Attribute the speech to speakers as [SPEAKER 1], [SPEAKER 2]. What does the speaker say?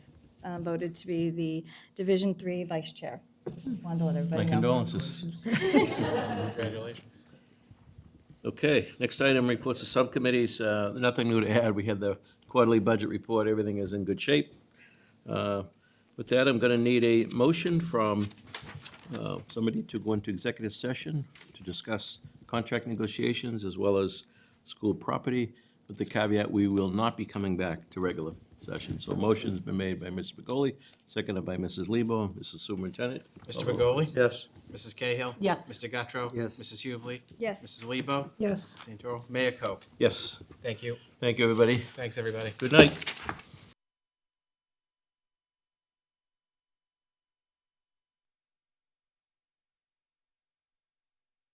[SPEAKER 1] uh, voted to be the Division Three Vice Chair. Just wanted to let
[SPEAKER 2] My
[SPEAKER 1] everybody know.
[SPEAKER 2] condolences.
[SPEAKER 3] Congratulations.
[SPEAKER 2] Okay, next item, reports of subcommittees. Uh, Nothing new to add. We had the quarterly budget report. Everything is in good shape. Uh, With that, I'm going to need a motion from uh, somebody to go into executive session to discuss contract negotiations as well as school property, with the caveat, we will not be coming back to regular session. So motion's been made by Mr. Begoli, seconded by Mrs. Lebo, Mrs. Superintendent.
[SPEAKER 3] Mr. Begoli?
[SPEAKER 2] Yes.
[SPEAKER 3] Mrs. Cahill?
[SPEAKER 4] Yes.
[SPEAKER 3] Mr. Guttrow?
[SPEAKER 5] Yes.
[SPEAKER 3] Mrs. Hubley?
[SPEAKER 1] Yes.
[SPEAKER 3] Mrs. Lebo?
[SPEAKER 4] Yes.
[SPEAKER 3] Santoro? Mayor Cope?
[SPEAKER 2] Yes.
[SPEAKER 3] Thank you.
[SPEAKER 2] Thank you, everybody.
[SPEAKER 3] Thanks, everybody.
[SPEAKER 2] Good night.